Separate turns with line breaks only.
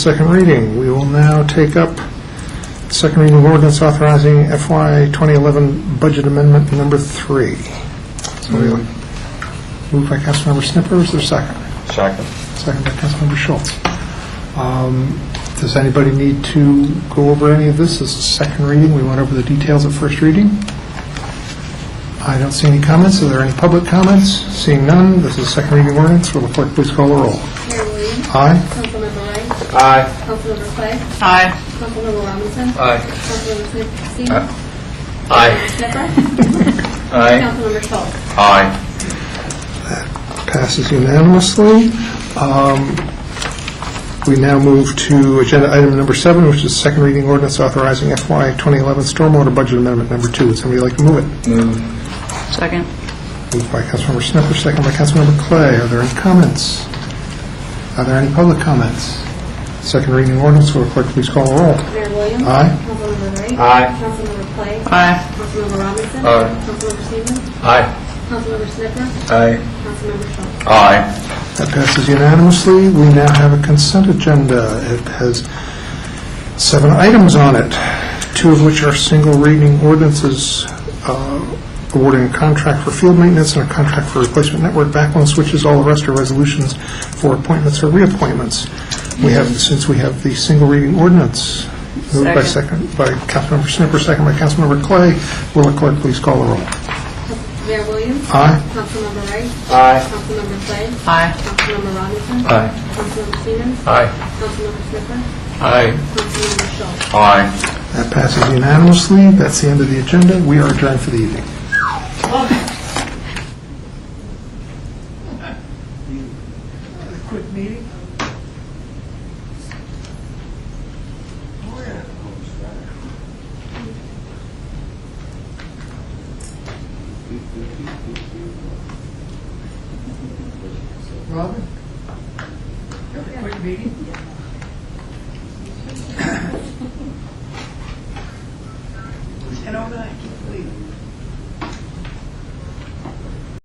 Second reading, we will now take up second reading of ordinance authorizing FY 2011 budget amendment number three. So we will- Moved by Councilmember Snipper, is there a second?
Second.
Second by Councilmember Schultz. Um, Does anybody need to go over any of this? This is second reading, we went over the details at first reading. I don't see any comments, are there any public comments? Seeing none, this is second reading ordinance, will the clerk please call the roll?
Mayor Williams.
Aye?
Councilmember Lang.
Aye.
Councilmember Clay.
Aye.
Councilmember Robinson.
Aye.
Councilmember Smith- Stevens.
Aye.
Snipper.
Aye.
Councilmember Schultz.
Aye.
Passes unanimously. Um, We now move to agenda item number seven, which is second reading ordinance authorizing FY 2011 stormwater budget amendment number two. Would somebody like to move it?
Second.
Moved by Councilmember Snipper, second by Councilmember Clay. Are there any comments? Are there any public comments? Second reading ordinance, will the clerk please call the roll?
Mayor Williams.
Aye.
Councilmember Wright.
Aye.
Councilmember Clay.
Aye.
Councilmember Robinson.
Aye.
Councilmember Stevens.
Aye.
Councilmember Snipper.
Aye.
Councilmember Schultz.
Aye.
That passes unanimously. We now have a consent agenda. It has seven items on it, two of which are single reading ordinances uh, awarding a contract for field maintenance and a contract for replacement network backbone switches. All the rest are resolutions for appointments or reappointments. We have, since we have the single reading ordinance, moved by second, by Councilmember Snipper, second by Councilmember Clay. Will the clerk please call the roll?
Mayor Williams.
Aye?
Councilmember Wright.
Aye.
Councilmember Clay.
Aye.
Councilmember Robinson.
Aye.
Councilmember Stevens.
Aye.
Councilmember Snipper.
Aye.
Councilmember Schultz.
Aye.
That passes unanimously. That's the end of the agenda. We are adjourned for the evening. Robin?